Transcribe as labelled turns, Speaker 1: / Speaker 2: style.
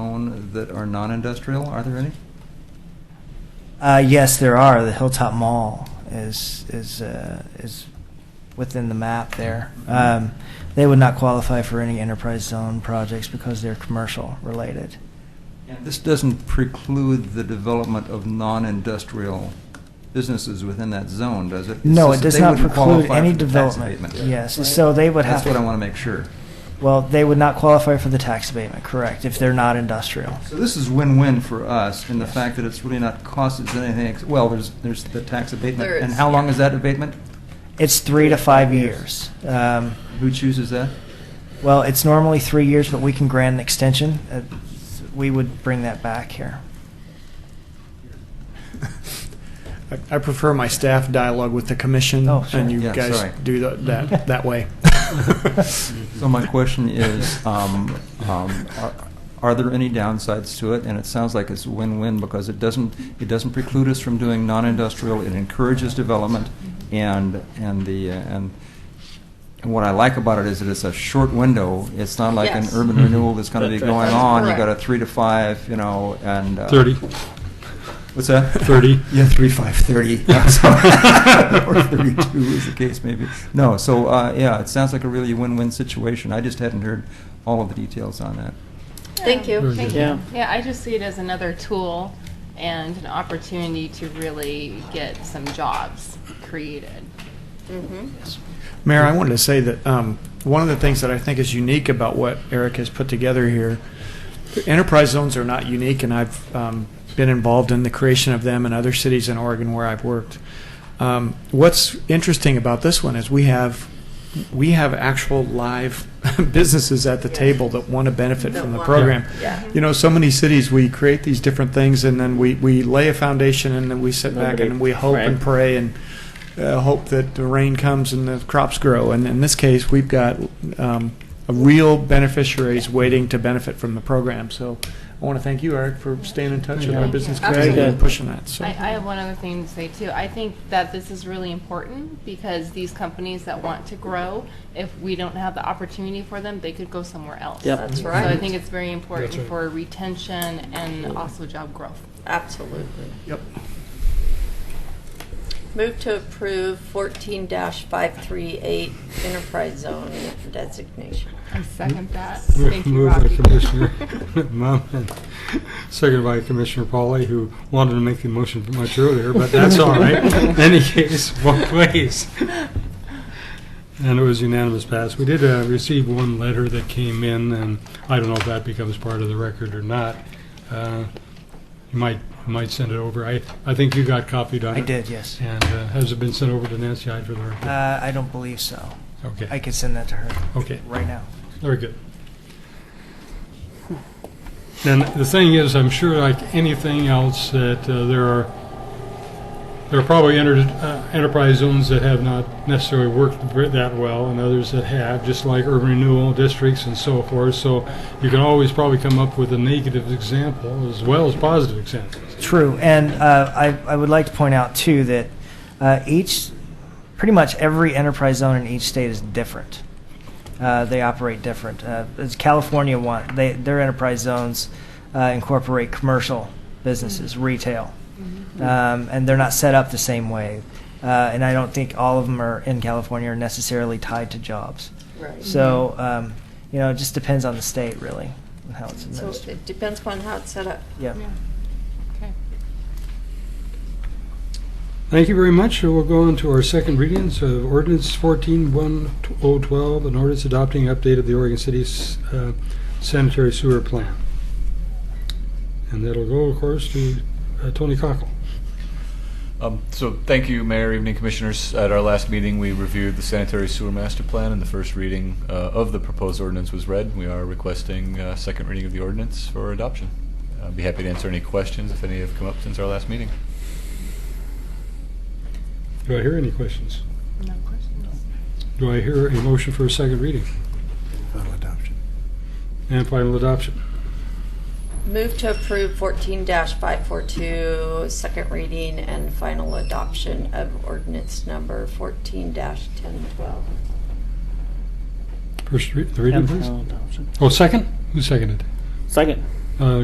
Speaker 1: zone that are non-industrial? Are there any?
Speaker 2: Uh, yes, there are. The Hilltop Mall is is uh, is within the map there. Um, they would not qualify for any enterprise zone projects because they're commercial related.
Speaker 1: And this doesn't preclude the development of non-industrial businesses within that zone, does it? It's
Speaker 2: no, it
Speaker 1: just that
Speaker 2: does
Speaker 1: they
Speaker 2: not
Speaker 1: wouldn't
Speaker 2: preclude
Speaker 1: qualify
Speaker 2: any
Speaker 1: for the tax
Speaker 2: development.
Speaker 1: abatement.
Speaker 2: Yes, so they would have.
Speaker 1: That's what I want to make sure.
Speaker 2: Well, they would not qualify for the tax abatement, correct? If they're not industrial.
Speaker 1: So this is win-win for us in the
Speaker 2: Yes.
Speaker 1: fact that it's really not costing us anything, ex- well, there's, there's the tax abatement.
Speaker 3: There
Speaker 1: And
Speaker 3: is.
Speaker 1: how long is that abatement?
Speaker 2: It's three to five years. Um,
Speaker 1: Who chooses that?
Speaker 2: well, it's normally three years, but we can grant an extension. Uh, we would bring that back here.
Speaker 4: I- I prefer my staff dialogue with the commission,
Speaker 2: Oh, sure.
Speaker 4: and you
Speaker 1: Yeah,
Speaker 4: guys
Speaker 1: sorry.
Speaker 4: do tha- that that way.
Speaker 1: So my question is, um, um, are, are there any downsides to it? And it sounds like it's win-win because it doesn't, it doesn't preclude us from doing non-industrial, it encourages development, and, and the, uh, and and what I like about it is that it's a short window. It's not like an
Speaker 3: Yes.
Speaker 1: urban
Speaker 5: Mhm.
Speaker 1: renewal that's gonna be
Speaker 5: That's right.
Speaker 1: going
Speaker 3: That's
Speaker 1: on. You
Speaker 3: correct.
Speaker 1: got a three to five, you know, and. uh,
Speaker 5: 30.
Speaker 1: What's that?
Speaker 5: 30.
Speaker 1: Yeah, three, five, thirty. Yeah, so- Or thirty-two is the case maybe. No, so, uh, yeah, it sounds like a really win-win situation. I just hadn't heard all of the details on that.
Speaker 3: Thank you.
Speaker 5: Very
Speaker 6: Thank
Speaker 5: good.
Speaker 6: you.
Speaker 7: Yeah.
Speaker 6: Yeah, I just see it as another tool and an opportunity to really get some jobs created.
Speaker 3: Mhm.
Speaker 4: Mayor, I wanted to say that um, one of the things that I think is unique about what Eric has put together here, enterprise zones are not unique, and I've um, been involved in the creation of them in other cities in Oregon where I've worked. Um, what's interesting about this one is we have we have actual live businesses at the table that want to benefit
Speaker 3: That
Speaker 4: from the
Speaker 3: want-
Speaker 4: program.
Speaker 3: Yeah.
Speaker 4: You know, so many cities we create these different things, and then we, we lay a foundation, and then we sit back
Speaker 7: Nobody-
Speaker 4: and we hope and
Speaker 7: right.
Speaker 4: pray and uh, hope that the rain comes and the crops grow. And in this case, we've got um, a real beneficiaries waiting to benefit from the program. So I want to thank you, Eric, for staying in touch with our
Speaker 6: Thank you.
Speaker 4: business
Speaker 6: Absolutely.
Speaker 4: community and pushing that. So.
Speaker 6: I, I have one other thing to say too. I think that this is really important because these companies that want to grow, if we don't have the opportunity for them, they could go somewhere else.
Speaker 7: Yep.
Speaker 3: That's
Speaker 6: So I
Speaker 3: right.
Speaker 6: think it's very important
Speaker 5: That's right.
Speaker 6: for retention and also job growth.
Speaker 3: Absolutely.
Speaker 4: Yep.
Speaker 3: Move to approve fourteen five three eight enterprise zone designation.
Speaker 6: I second that. Thank you,
Speaker 5: Moved by
Speaker 6: Rocky.
Speaker 5: Commissioner Mum, seconded by Commissioner Pauley, who wanted to make the motion much earlier, but that's all right. In any case, both ways. And it was unanimous pass. We did uh, receive one letter that came in, and I don't know if that becomes part of the record or not. Uh, You might, you might send it over. I, I think you got copied on it.
Speaker 2: I did, yes.
Speaker 5: And uh, has it been sent over to Nancy Hyde for the record?
Speaker 2: Uh, I don't believe so. I
Speaker 5: Okay,
Speaker 2: could send that to her
Speaker 5: okay.
Speaker 2: right now.
Speaker 5: Very good. And the thing is, I'm sure like anything else, that uh, there are, there are probably enter- uh, enterprise zones that have not necessarily worked ver- that well, and others that have, just like urban renewal districts and so forth. So you can always probably come up with a negative example as well as positive examples.
Speaker 2: True, and uh, I, I would like to point out too that uh, each, pretty much every enterprise zone in each state is different. Uh, they operate different. Uh, it's California one. They their enterprise zones uh, incorporate commercial businesses,
Speaker 3: Mm-hmm.
Speaker 2: retail, um, and they're not set up the same way. Uh, and I don't think all of them are in California are necessarily tied to jobs.
Speaker 3: Right.
Speaker 2: So um, you know, it just depends on the state really and how it's
Speaker 3: Mm-hmm. So
Speaker 2: administered.
Speaker 3: it depends upon how it's set up.
Speaker 2: yeah.
Speaker 6: Yeah. Okay.
Speaker 5: Thank you very much. We'll go on to our second readings of ordinance 14-1012, an ordinance adopting update of the Oregon City uh, sanitary sewer plan. And that'll go, of course, to uh, Tony Cockle.
Speaker 8: Um, So, thank you, Mayor, evening commissioners. At our last meeting, we reviewed the sanitary sewer master plan, and the first reading uh, of the proposed ordinance was read. We are requesting uh second reading of the ordinance for adoption. I'd be happy to answer any questions if any have come up since our last meeting.
Speaker 5: Do I hear any questions?
Speaker 6: No questions?
Speaker 5: Do I hear a motion for a second reading and final adoption?
Speaker 3: Move to approve fourteen five four two, second reading and final adoption of ordinance number fourteen ten twelve.
Speaker 5: First re- the reading,
Speaker 7: And
Speaker 5: please.
Speaker 7: final adoption.
Speaker 5: Oh, second? Who seconded?
Speaker 7: Second.